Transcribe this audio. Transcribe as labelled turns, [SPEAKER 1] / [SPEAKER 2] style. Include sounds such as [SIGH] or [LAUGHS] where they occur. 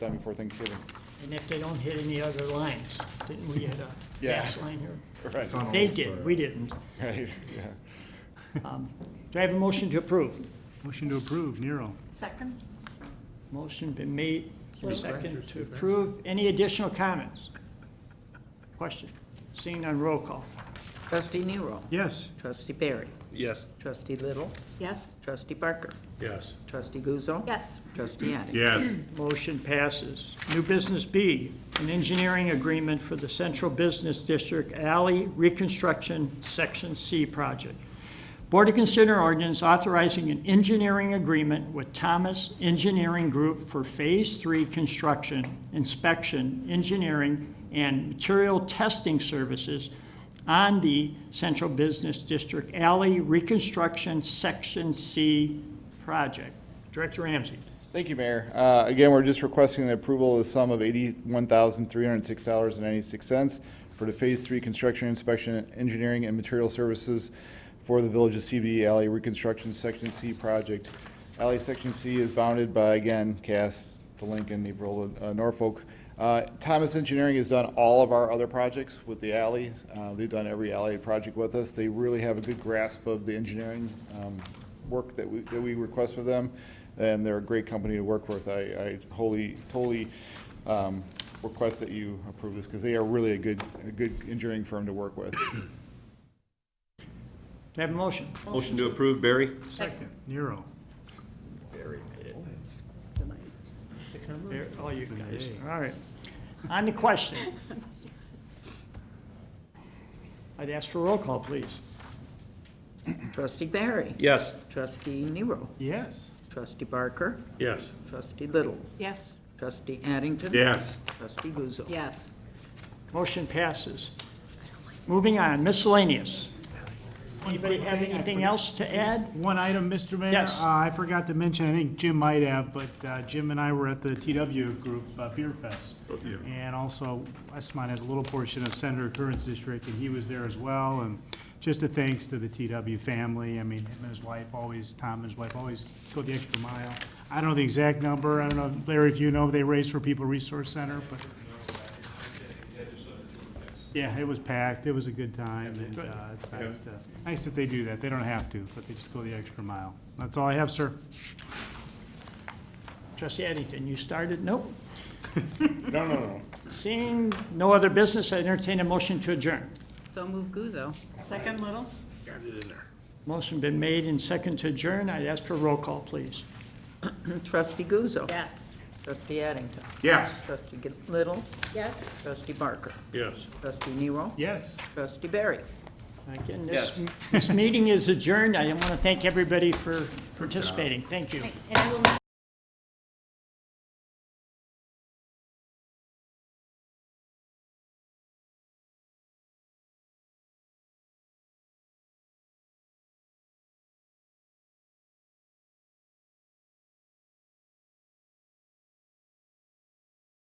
[SPEAKER 1] time before Thanksgiving.
[SPEAKER 2] And if they don't hit any other lines, didn't we hit a
[SPEAKER 1] Yeah.
[SPEAKER 2] gas line here?
[SPEAKER 1] Right,
[SPEAKER 2] They did, we didn't.
[SPEAKER 1] [LAUGHS] right, yeah.
[SPEAKER 2] Do I have a motion to approve?
[SPEAKER 3] Motion to approve, Nero.
[SPEAKER 4] Second?
[SPEAKER 2] Motion been made, second to approve. Any additional comments? Question? Seeing on roll call.
[SPEAKER 5] Trustee Nero.
[SPEAKER 3] Yes.
[SPEAKER 5] Trustee Barry.
[SPEAKER 6] Yes.
[SPEAKER 5] Trustee Little.
[SPEAKER 4] Yes?
[SPEAKER 5] Trustee Barker.
[SPEAKER 6] Yes.
[SPEAKER 5] Trustee Guzzo.
[SPEAKER 4] Yes.
[SPEAKER 5] Trustee Addington.
[SPEAKER 6] Yes.
[SPEAKER 2] Motion passes. New business B, an engineering agreement for the Central Business District Alley Reconstruction Section C project. Board to consider ordinance authorizing an engineering agreement with Thomas Engineering Group for Phase Three construction, inspection, engineering, and material testing services on the Central Business District Alley Reconstruction Section C project. Director Ramsey.
[SPEAKER 1] Thank you, Mayor. Uh, Again, we're just requesting the approval of the sum of $81,306.96 for the Phase 3 construction inspection, engineering, and material services for the Village of CBD Alley Reconstruction Section C project. Alley Section C is bounded by, again, Cass, to Lincoln, Naperville, uh, Norfolk. Uh, Thomas Engineering has done all of our other projects with the alleys. Uh, They've done every alley project with us. They really have a good grasp of the engineering um, work that we, that we request for them, and they're a great company to work with. I, I wholly, totally um, request that you approve this, because they are really a good, a good engineering firm to work with.
[SPEAKER 2] Do I have a motion?
[SPEAKER 6] Motion to approve, Barry?
[SPEAKER 4] Second.
[SPEAKER 3] Nero.
[SPEAKER 2] There, all you guys, all right. On the question. I'd ask for roll call, please.
[SPEAKER 5] Trustee Barry.
[SPEAKER 6] Yes.
[SPEAKER 5] Trustee Nero.
[SPEAKER 3] Yes.
[SPEAKER 5] Trustee Barker.
[SPEAKER 6] Yes.
[SPEAKER 5] Trustee Little.
[SPEAKER 4] Yes.
[SPEAKER 5] Trustee Addington.
[SPEAKER 6] Yes.
[SPEAKER 5] Trustee Guzzo.
[SPEAKER 4] Yes.
[SPEAKER 2] Motion passes. Moving on, miscellaneous. Anybody have anything else to add?
[SPEAKER 3] One item, Mr. Mayor.
[SPEAKER 2] Yes.
[SPEAKER 3] Uh, I forgot to mention, I think Jim might have, but uh, Jim and I were at the TW Group uh, Beer Fest. And also, Westmont has a little portion of Senator Curran's district, and he was there as well. And just a thanks to the TW family. I mean, him and his wife always, Tom and his wife always go the extra mile. I don't know the exact number. I don't know, Larry, if you know, they raised for People Resource Center, but. Yeah, it was packed. It was a good time, and uh, it's nice to, nice that they do that. They don't have to, but they just go the extra mile. That's all I have, sir.
[SPEAKER 2] Trustee Addington, you started? Nope.
[SPEAKER 1] [LAUGHS] No, no, no.
[SPEAKER 2] Seeing no other business, I entertain a motion to adjourn.
[SPEAKER 5] So move Guzzo. [LAUGHS]
[SPEAKER 4] Second, Little?
[SPEAKER 2] Motion been made and second to adjourn. I'd ask for roll call, please.
[SPEAKER 5] Trustee Guzzo.
[SPEAKER 4] Yes.
[SPEAKER 5] Trustee Addington.
[SPEAKER 6] Yes.
[SPEAKER 5] Trustee G- Little.
[SPEAKER 4] Yes.
[SPEAKER 5] Trustee Barker.
[SPEAKER 6] Yes.
[SPEAKER 5] Trustee Nero.
[SPEAKER 3] Yes.
[SPEAKER 5] Trustee Barry.
[SPEAKER 2] Again, this, this meeting is adjourned. I want to thank everybody for participating. Thank you.
[SPEAKER 4] And I will not